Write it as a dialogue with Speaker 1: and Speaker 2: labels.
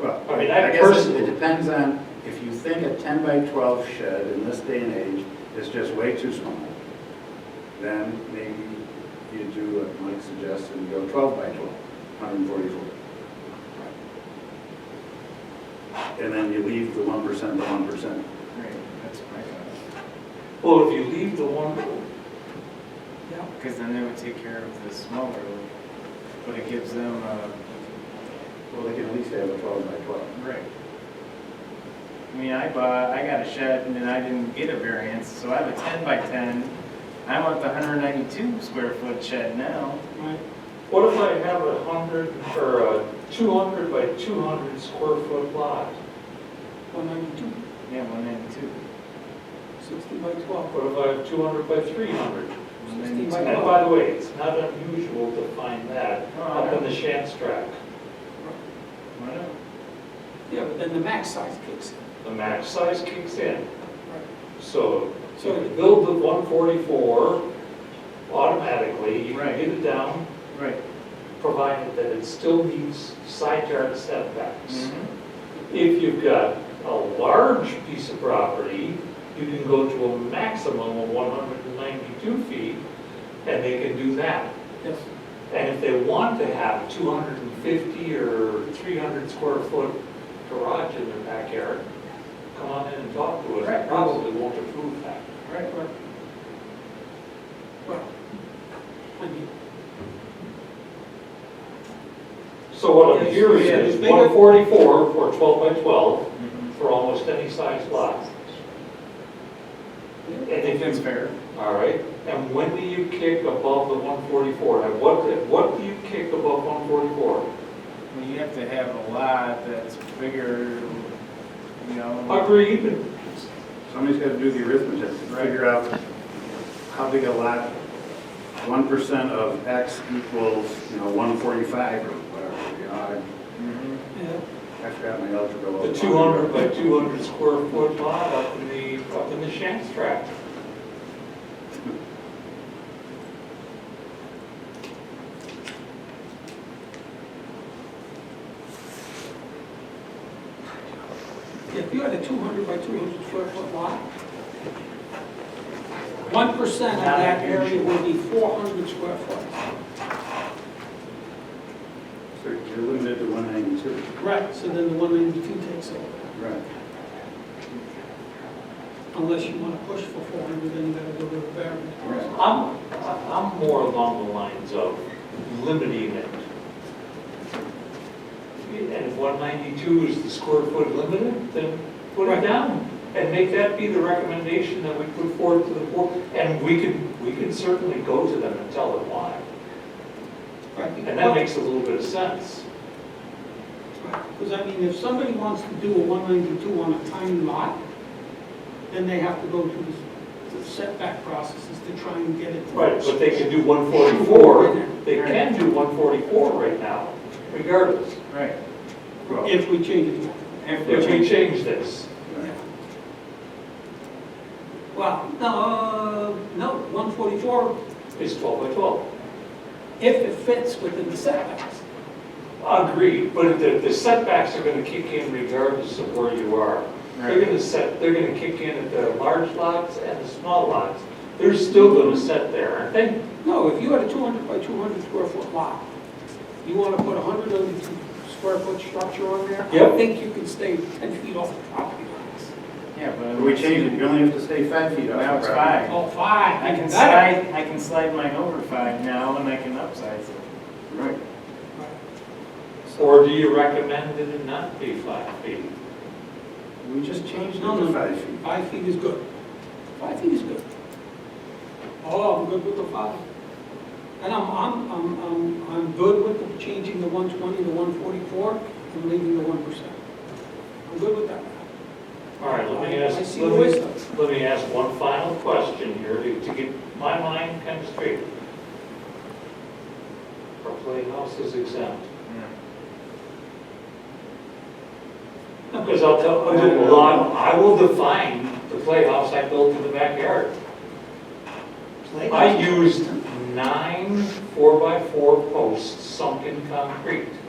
Speaker 1: Well,
Speaker 2: I
Speaker 1: I
Speaker 2: mean, I
Speaker 1: guess it-
Speaker 2: personally-
Speaker 1: it depends on, if you think a 10 by 12 shed in this day and age is just way too small, then maybe you do what Mike suggested, and go 12 by 12, 144. And then you leave the 1% the 1%.
Speaker 3: Right, that's my thought.
Speaker 2: Well, if you leave the one,
Speaker 3: Yeah. Because then they would take care of the smaller, one, but it gives them a,
Speaker 1: Well, they can at least have a 12 by 12.
Speaker 3: right. I mean, I bought, I got a shed and then I didn't get a variance, so I have a ten by ten. I want the hundred ninety-two square foot shed now.
Speaker 2: what if I have a hundred or a two hundred by two hundred square foot lot?
Speaker 4: One ninety-two,
Speaker 3: Yeah, one ninety-two.
Speaker 4: sixty by twelve,
Speaker 2: What if I have two hundred by three hundred?
Speaker 4: sixty by
Speaker 2: And
Speaker 4: twelve.
Speaker 2: by the way, it's not unusual to find that up in the Shamstrack,
Speaker 4: Yeah, but then the max size kicks in.
Speaker 2: the max size kicks in.
Speaker 4: Right.
Speaker 2: So if
Speaker 4: So-
Speaker 2: you build the one forty-four automatically, you can
Speaker 3: Right.
Speaker 2: get it down,
Speaker 3: Right.
Speaker 2: provided that it still meets side yard
Speaker 4: Mm-hmm.
Speaker 2: setbacks.
Speaker 3: Mhm.
Speaker 2: If you've got a large piece of property, you can go to a maximum of one hundred and ninety-two feet, and they can do that.
Speaker 4: Yes.
Speaker 2: And if they want to have two hundred and fifty or three hundred square foot garage in their backyard, come on in and talk to us, I
Speaker 3: Right.
Speaker 2: probably won't approve that.
Speaker 3: Right, right.
Speaker 4: Well, I mean,
Speaker 2: So what I'm
Speaker 3: Yes,
Speaker 2: hearing
Speaker 3: yeah,
Speaker 2: is
Speaker 3: just make it-
Speaker 2: one forty-four for twelve by twelve
Speaker 3: Mhm.
Speaker 2: for almost any size lot.
Speaker 4: yeah.
Speaker 2: And
Speaker 3: I think
Speaker 2: if
Speaker 3: that's
Speaker 2: you
Speaker 3: fair.
Speaker 2: All right, and when do you kick above the 144? At what, at what do you kick above 144?
Speaker 3: Well, you have to have a lot that's bigger, you know.
Speaker 2: Agreed, and
Speaker 1: Somebody's got to do the arithmetic to figure out how big a lot, one percent of X equals, you know, one forty-five or whatever, you know,
Speaker 3: Mhm.
Speaker 4: Yeah.
Speaker 1: I, I forgot my algebra.
Speaker 2: the 200 by 200 square foot lot up in the, up in the Shanks tract.
Speaker 4: If you had a two hundred by two hundred square foot lot, one percent of that area would be four hundred square foot.
Speaker 1: So you're limited to one ninety-two.
Speaker 4: Right. So then the one ninety-two takes over,
Speaker 1: Right.
Speaker 4: unless you wanna push for four hundred, then you gotta go to a variance.
Speaker 2: I'm, I'm more along the lines of limiting it. And if 192 is the square foot limited, then put it
Speaker 4: Right.
Speaker 2: down. And make that be the recommendation that we put forward to the board. And we can, we can certainly go to them and tell them why.
Speaker 4: Right.
Speaker 2: And that makes a little bit of sense.
Speaker 4: Because I mean, if somebody wants to do a one ninety-two on a tiny lot, then they have to go through the- the setback processes to try and get it.
Speaker 2: But they can do 144, they can do 144 right now, regardless,
Speaker 3: Right.
Speaker 1: Well,
Speaker 4: If we change it.
Speaker 2: if we change this.
Speaker 1: right.
Speaker 4: Well, no, uh, no, one forty-four,
Speaker 2: It's 12 by 12.
Speaker 4: if it fits within the setbacks.
Speaker 2: Agreed, but the the setbacks are going to kick in regardless of where you are. They're
Speaker 3: Right.
Speaker 2: going to set, they're going to kick in at the large lots and the small lots. They're still going to set there, aren't they?
Speaker 4: No, if you had a two hundred by two hundred square foot lot, you wanna put a hundred and two square foot structure on there?
Speaker 2: Yep.
Speaker 4: I think you can stay ten feet off the property lines.
Speaker 3: Yeah, but.
Speaker 1: But we changed it, you only have to stay five feet off. the
Speaker 3: Now it's
Speaker 1: property.
Speaker 3: five.
Speaker 4: Oh, five,
Speaker 3: I
Speaker 4: I
Speaker 3: can
Speaker 4: can that.
Speaker 3: slide, I can slide mine over five now and I can upsize it.
Speaker 1: Right.
Speaker 2: Or do you recommend that it not be five feet?
Speaker 1: We just changed it
Speaker 4: No,
Speaker 1: to
Speaker 4: no.
Speaker 1: five feet.
Speaker 4: Five feet is good. Five feet is good. Oh, I'm good with the five. And I'm, I'm, I'm, I'm, I'm good with the changing the one twenty to one forty-four and leaving the one percent. I'm good with that.
Speaker 2: All right, let me
Speaker 4: I-
Speaker 2: ask,
Speaker 4: I see the
Speaker 2: let me,
Speaker 4: wisdom.
Speaker 2: let me ask one final question here to to get my mind kind of straight. Are playhouses exempt? Because I'll tell, I will- well, I'm- I will define the playhouse I built in the backyard. I used nine four-by-four posts sunk in concrete.